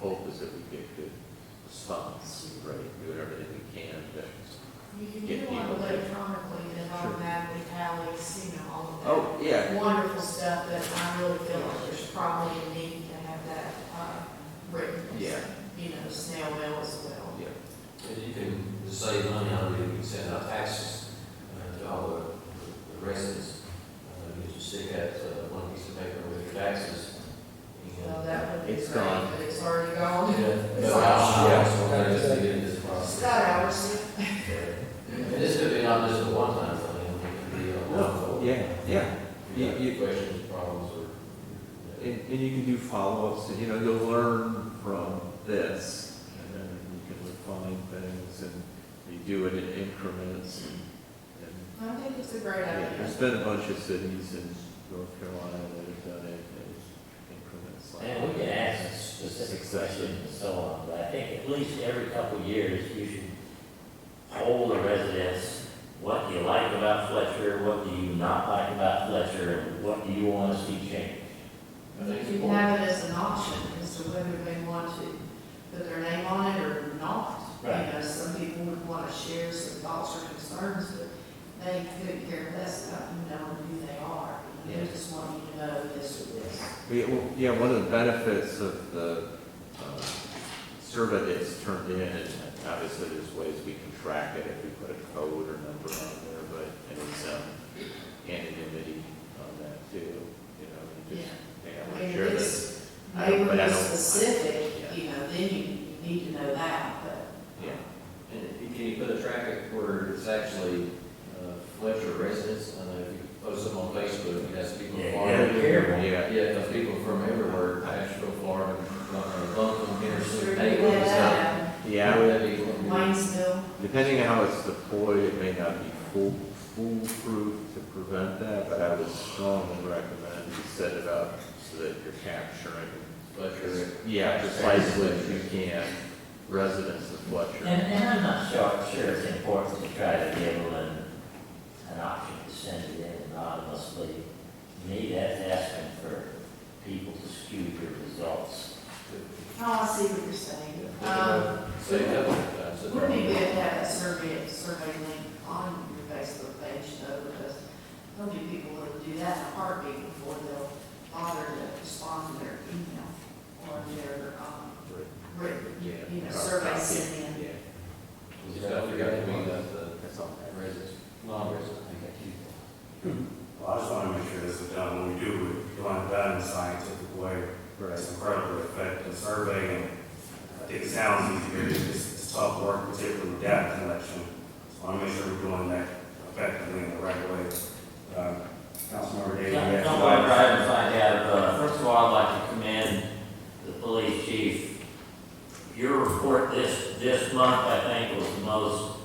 ones that we think could stop, right? Do everything we can to, You can Get do one people there. electronically that Sure. automatically tallies, you know, all oh, of that yeah, wonderful stuff, but I really feel like there's probably a need to have that, uh, written. Yeah. You know, snail mail as well. yeah, And you can just save money on it, you can send out taxes uh, to all the the residents. Uh, You just stick out uh, one piece of paper with your taxes. and- So that would be It's great, gone. but it's already gone. Yeah, uh, no, I- I also wanted us to get this It's process. got hours. And this could be not just a one-time thing, it could be a no, whole. yeah, yeah. You- You you- got questions, problems, or. And, and you can do follow-ups, and you know, you'll learn from this, and then you can refine things, and you do it in increments, and, and I think it's a great Yeah, idea. there's been a bunch of cities in North Carolina that have done it in increments like. And we can ask specific questions and so on, but I think at least every couple of years, you should poll the residents, what do you like about Fletcher, what do you not like about Fletcher, and what do you want to see change? I You think it's can important. have it as an option, as to whether they want to put their name on it or not. Right. You know, some people would want to share some thoughts or concerns, but they couldn't care less about you knowing who they are. They Yeah. just want you to know this or this. We- well, Yeah, one of the benefits of the um, survey that's turned in, and obviously there's ways we can track it if we put a code or number on there, but it's um, anonymity on that too, you know, you just, hey, I I want mean, to if share this. it's I don't- but I neighborhood don't- specific, Yeah. you know, then you you need to know that, but Yeah, And can you put a traffic where it's actually uh, Fletcher residents? I know if you post them on Facebook, it has people from Yeah, yeah, Florida. yeah. yeah, Yeah, those people from everywhere, Asheville, Florida, uh, Buncombe, I'm Henry, sure you Naples, have so. that. yeah, I would- That'd be one. Waynesville, Depending on how it's deployed, it may not be fool- foolproof to prevent that, but I would strongly recommend you set it up so that you're capturing. Fletcher. Yeah, precisely if you can, residents of And, Fletcher. and I'm not sure, sure it's important to try to give them an, an option to send it in anonymously. To me, that's asking for people to skew your results. oh, I see what you're saying. Um, Say that one time, so- Wouldn't it be good to have a survey, survey link on your Facebook page though, because there'll be people that'll do that in a heartbeat before they'll bother to respond to their email or their, um, written, you know, survey sent in. Yeah, You just gotta figure out the one that the that's all. residents, non-residents, I think, Well, I just want to make sure this is done, when we do, it, we want it done in a scientific way. It's incredibly effective survey, and I think it sounds easier, it's it's tough work, particularly with data collection. So I want to make sure we're doing that effectively in the right way. Uh, Councilmember Davis. you Yeah, asked Don't about- worry, Brian, if I have, uh, first of all, I'd like to commend the police chief. Your report this, this month, I think, was the most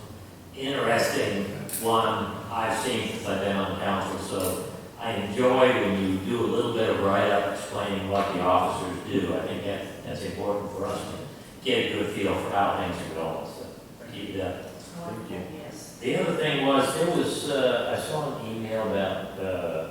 interesting one I've seen since I've been on council. So I enjoy when you do a little bit of write-up explaining what the officers do. I think that, that's important for us to get a good feel for how things are going, so keep it up. That's one thing, yes. The other thing was, there was, uh, I saw an email about, uh,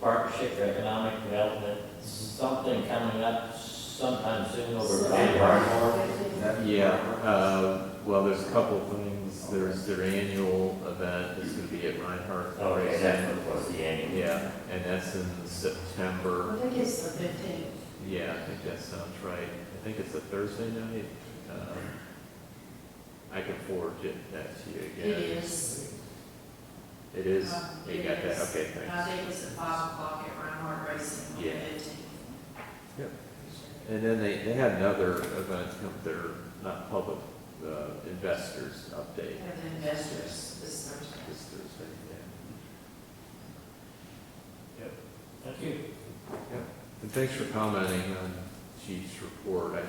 partnership for economic development, something coming up sometime soon over. So- by Bar- Yeah, uh, well, there's a couple things, there's their annual event, it's gonna be at Reinhardt. Oh, yeah, that's what was the annual. Yeah, and that's in September. I think it's the fifteenth. Yeah, I think that sounds right. I think it's a Thursday night. Um, I can forward it, that to you It again. is. It is? Um, You it got that? is. Uh, Okay, I thanks. think it's at five o'clock at Reinhardt Racing on the Yeah. fifteenth. And then they, they had another event, come- their, not public, uh, investors update We have the investors this Thursday. this Thursday, yeah. Thank you. And thanks for commenting on Chief's report. I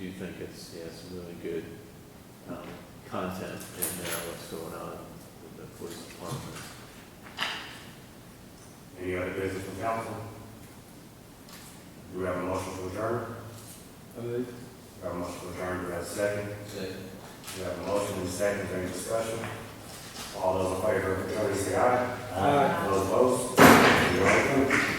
do think it's, yeah, some really good, um, content in there, what's going on with the police department. Any other business from council? Do we have a motion to adjourn? Do we have a motion to adjourn, do we have a second? so. Do we have a motion and a second, is there any discussion? All those in favor, please say aye. Uh, Those opposed? You're welcome.